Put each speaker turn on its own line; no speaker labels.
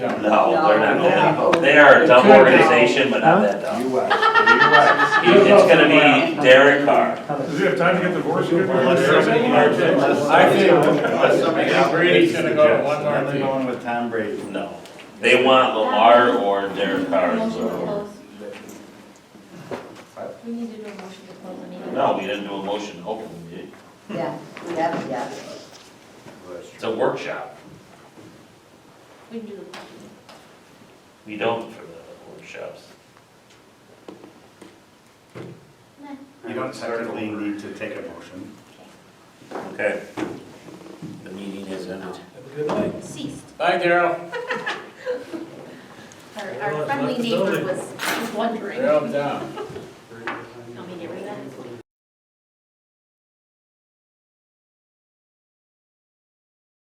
No, they're not that
No.
dumb. They are a dumb
Could be.
organization, but not that dumb.
You are.
It's gonna be Derek Carr.
Does he have time to get divorced? He could be-
Unless somebody-
I think,
Unless
I
somebody
think Brady's gonna go to one
Now
more
they're
team.
going with Tom Brady.
No. They want Lamar or Derek Carr. as
Motion to
their-
close. We need to do a motion to close the meeting.
No, we didn't do a motion, hopefully. we did.
Yeah, yeah, yeah.
It's a workshop.
We can do the.
We don't for the workshops.
Nah.
You don't certainly need to take a motion.
Okay. The meeting is ended.
Ceased.
Bye, Daryl.
Our, our friendly neighbor was wondering.
Daryl down.